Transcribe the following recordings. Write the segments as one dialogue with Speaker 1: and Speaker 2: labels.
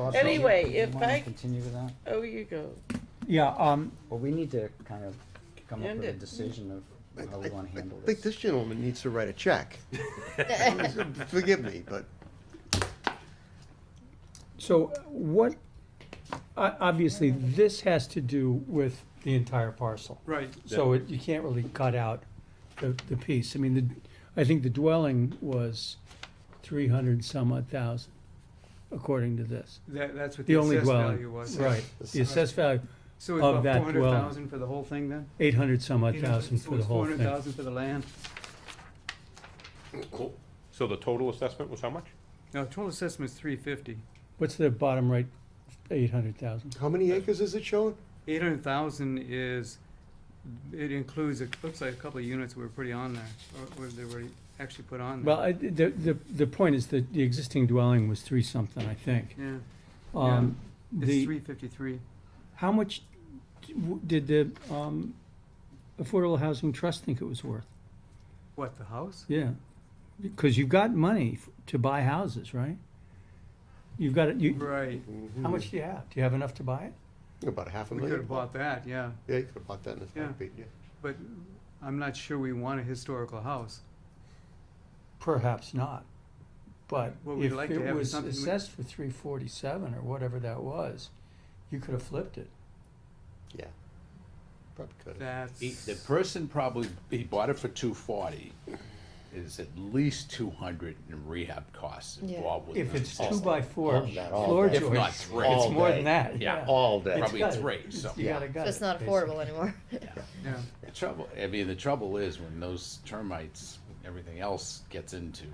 Speaker 1: Well, so you-
Speaker 2: Anyway,
Speaker 1: you
Speaker 2: if
Speaker 1: wanna
Speaker 2: I-
Speaker 1: Continue with that?
Speaker 2: Oh, you go.
Speaker 3: Yeah, um,
Speaker 1: Well, we need to kind of come up
Speaker 2: End
Speaker 1: with a
Speaker 2: it.
Speaker 1: decision of how
Speaker 4: I-
Speaker 1: we wanna handle
Speaker 4: I think this gentleman needs to write a check. Forgive me, but
Speaker 3: so what, o- obviously, this has to do with the entire parcel.
Speaker 5: Right.
Speaker 3: So it, you can't really cut out the, the piece. I mean, the, I think the dwelling was three hundred and some odd thousand, according to this.
Speaker 5: That, that's what
Speaker 3: The
Speaker 5: the
Speaker 3: only
Speaker 5: assessed value
Speaker 3: dwelling,
Speaker 5: was.
Speaker 3: right. The assessed value,
Speaker 5: So it's
Speaker 3: of
Speaker 5: about
Speaker 3: that
Speaker 5: four hundred
Speaker 3: dwelling.
Speaker 5: thousand for the whole thing then?
Speaker 3: eight hundred some odd thousand for the whole
Speaker 5: Four hundred
Speaker 3: thing.
Speaker 5: thousand for the land?
Speaker 6: So the total assessment was how much?
Speaker 5: No, total assessment's three fifty.
Speaker 3: What's the bottom right, eight hundred thousand?
Speaker 4: how many acres is it showing?
Speaker 5: Eight hundred thousand is, it includes, it looks like a couple of units were pretty on there, or, or they were actually put on there.
Speaker 3: Well, I, the, the, the point is that the existing dwelling was three something, I think.
Speaker 5: Yeah,
Speaker 3: Um,
Speaker 5: it's
Speaker 3: the,
Speaker 5: three fifty-three.
Speaker 3: How much d- w- did the um, Affordable Housing Trust think it was worth?
Speaker 5: What, the house?
Speaker 3: Yeah, because you've got money f- to buy houses, right? You've got, it. you,
Speaker 5: Right,
Speaker 3: how much do you have? Do you have enough to buy it?
Speaker 4: About a half a
Speaker 5: we
Speaker 4: million.
Speaker 5: could have bought that, yeah,
Speaker 4: Yeah, you could have bought that in a
Speaker 5: Yeah.
Speaker 4: heartbeat, yeah.
Speaker 5: but I'm not sure we want a historical house.
Speaker 3: Perhaps not, but
Speaker 5: What we'd
Speaker 3: if
Speaker 5: like to have
Speaker 3: it
Speaker 5: is
Speaker 3: was
Speaker 5: something we-
Speaker 3: assessed for three forty-seven or whatever that was, you could have flipped it.
Speaker 4: Yeah. Probably could have.
Speaker 5: That's.
Speaker 7: He- The person probably, he bought it for two forty, is at least two hundred in rehab costs
Speaker 8: Yeah.
Speaker 7: involved with
Speaker 3: If
Speaker 7: this.
Speaker 3: it's two by four
Speaker 4: that all
Speaker 3: floor
Speaker 4: day.
Speaker 7: If not
Speaker 3: joists, it's
Speaker 7: three.
Speaker 4: All
Speaker 3: more
Speaker 4: day.
Speaker 3: than that,
Speaker 7: Yeah,
Speaker 3: yeah.
Speaker 4: All day.
Speaker 3: It's
Speaker 7: Probably
Speaker 3: gutted.
Speaker 7: three,
Speaker 3: It's-
Speaker 7: so-
Speaker 3: You gotta
Speaker 8: So
Speaker 3: gut
Speaker 8: it's
Speaker 3: it,
Speaker 8: not
Speaker 3: basically.
Speaker 8: affordable anymore.
Speaker 5: Yeah,
Speaker 7: The trouble, I mean, the trouble is when those termites, everything else gets into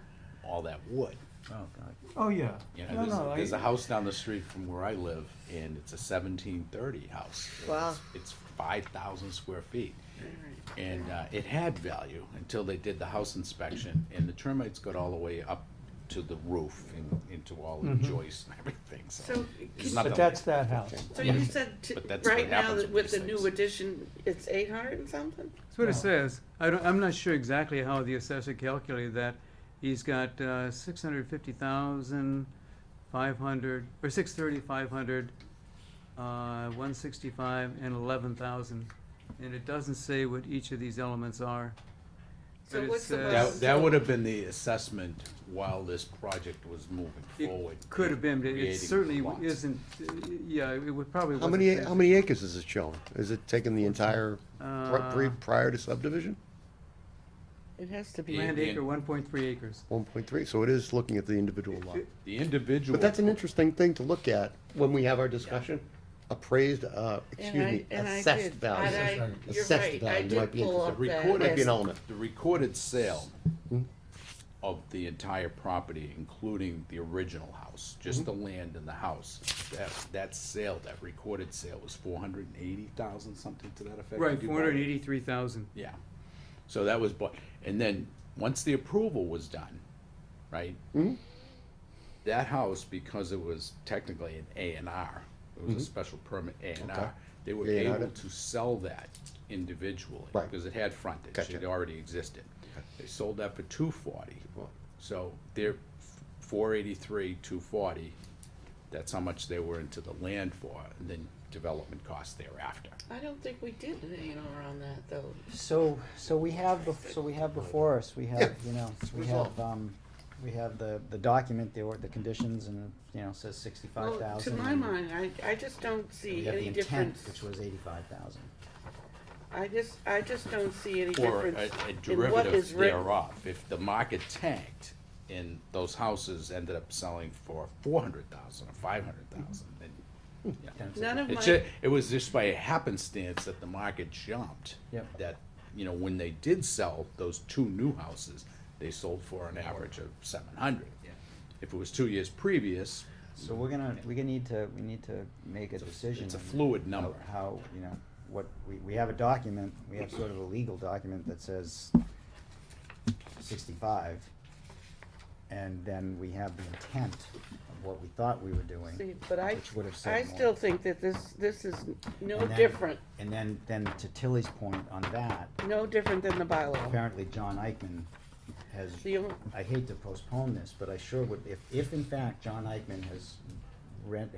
Speaker 7: all that wood.
Speaker 1: Oh, God.
Speaker 3: Oh, yeah.
Speaker 7: You
Speaker 3: No,
Speaker 7: know, there's,
Speaker 3: no,
Speaker 7: a- there's
Speaker 3: I-
Speaker 7: a house down the street from where I live, and it's a seventeen thirty house. and
Speaker 8: Wow.
Speaker 7: it's- It's five thousand square feet, and, uh, it had value until they did the house inspection, and the termites got all the way up to the roof and into all the
Speaker 3: Mm-hmm.
Speaker 7: joists and everything, so.
Speaker 2: So,
Speaker 7: it's
Speaker 2: can-
Speaker 7: not
Speaker 3: But
Speaker 7: the-
Speaker 3: that's that house.
Speaker 2: so you said, t-
Speaker 7: But that's what
Speaker 2: right now,
Speaker 7: happens
Speaker 2: that
Speaker 7: with
Speaker 2: with the
Speaker 7: these
Speaker 2: new
Speaker 7: things.
Speaker 2: addition, it's eight hundred and something?
Speaker 5: that's what
Speaker 3: No.
Speaker 5: it says. I don't, I'm not sure exactly how the assessor calculated that. He's got, uh, six hundred fifty thousand, five hundred, or six thirty, five hundred, uh, one sixty-five, and eleven thousand. And it doesn't say what each of these elements are.
Speaker 2: So
Speaker 5: But it
Speaker 2: what's the
Speaker 5: says-
Speaker 2: most-
Speaker 7: That, that would have been the assessment while this project was moving forward.
Speaker 5: It could have been, but it
Speaker 7: creating
Speaker 5: certainly
Speaker 7: lots.
Speaker 5: isn't, uh, yeah, it would probably.
Speaker 4: How
Speaker 5: wasn't
Speaker 4: many,
Speaker 5: finished.
Speaker 4: how many acres is it showing? Is it taking the entire, pri-
Speaker 5: Uh,
Speaker 4: pri- prior to subdivision?
Speaker 2: It has to be.
Speaker 7: Yeah.
Speaker 5: Land acre, one point three acres.
Speaker 4: One point three, so it is looking at the individual lot.
Speaker 7: The individual.
Speaker 4: But that's an interesting thing to look at when we have our discussion. Appraised, uh, excuse
Speaker 2: I-
Speaker 4: me,
Speaker 2: and I
Speaker 4: assessed
Speaker 2: did.
Speaker 4: value.
Speaker 2: And I- you're
Speaker 4: Assessed
Speaker 2: right, I
Speaker 4: value
Speaker 2: did
Speaker 4: might be
Speaker 2: pull
Speaker 4: interesting.
Speaker 2: up
Speaker 7: The
Speaker 2: that.
Speaker 7: recorded-
Speaker 4: Might be an element.
Speaker 7: The recorded sale
Speaker 4: Hmm.
Speaker 7: of the entire property, including the original house, just
Speaker 5: Mm-hmm.
Speaker 7: the land and the house, that, that sale, that recorded sale was four hundred and eighty thousand, something to that effect.
Speaker 5: Right,
Speaker 7: Did you
Speaker 5: four
Speaker 7: buy
Speaker 5: hundred and
Speaker 7: it?
Speaker 5: eighty-three thousand.
Speaker 7: Yeah, so that was, bu- and then, once the approval was done, right?
Speaker 4: Mm-hmm.
Speaker 7: That house, because it was technically an A and R, it was a special permit A and
Speaker 4: Mm-hmm. Okay.
Speaker 7: R, they were
Speaker 4: A&R
Speaker 7: able
Speaker 4: it.
Speaker 7: to sell that individually.
Speaker 4: Right.
Speaker 7: Because it had frontage,
Speaker 4: Gotcha.
Speaker 7: it already existed. They sold that for two forty, so they're four eighty-three, two forty, that's how much they were into the land for, and then development costs thereafter.
Speaker 2: I don't think we did an A and R on that, though.
Speaker 1: So, so we have, bef- so we have before us, we have, you know, we have,
Speaker 4: resolved.
Speaker 1: um, we have the, the document, the, or the conditions and, you know, says sixty-five
Speaker 2: Well, to
Speaker 1: thousand.
Speaker 2: my mind, I, I just don't see any
Speaker 1: We have the intent, which
Speaker 2: difference.
Speaker 1: was eighty-five thousand.
Speaker 2: I just, I just don't see any
Speaker 7: Or a
Speaker 2: difference
Speaker 7: a
Speaker 2: in what is
Speaker 7: derivative
Speaker 2: written.
Speaker 7: thereof. If the market tanked and those houses ended up selling for four hundred thousand or five hundred thousand, then, you know.
Speaker 2: None of
Speaker 7: It's
Speaker 2: my,
Speaker 7: ju- It was just by happenstance that the market jumped.
Speaker 1: Yep.
Speaker 7: That, you know, when they did sell those two new houses, they sold for an average of seven hundred. If it was two years previous,
Speaker 1: So we're gonna, we're gonna need to, we need to make a decision.
Speaker 7: it's a
Speaker 1: on
Speaker 7: fluid
Speaker 1: how-
Speaker 7: number.
Speaker 1: How, you know, what, we, we have a document, we have sort of a legal document that says sixty-five. And then we have the intent of what we thought we were doing.
Speaker 2: see, but I,
Speaker 1: which would have said
Speaker 2: I
Speaker 1: more.
Speaker 2: still think that this, this is no
Speaker 1: And then-
Speaker 2: different,
Speaker 1: And then, then to Tilly's point on that,
Speaker 2: no different than the bylaw.
Speaker 1: apparently John Eichman has,
Speaker 2: The only-
Speaker 1: I hate to postpone this, but I sure would, if, if in fact John Eichman has rent,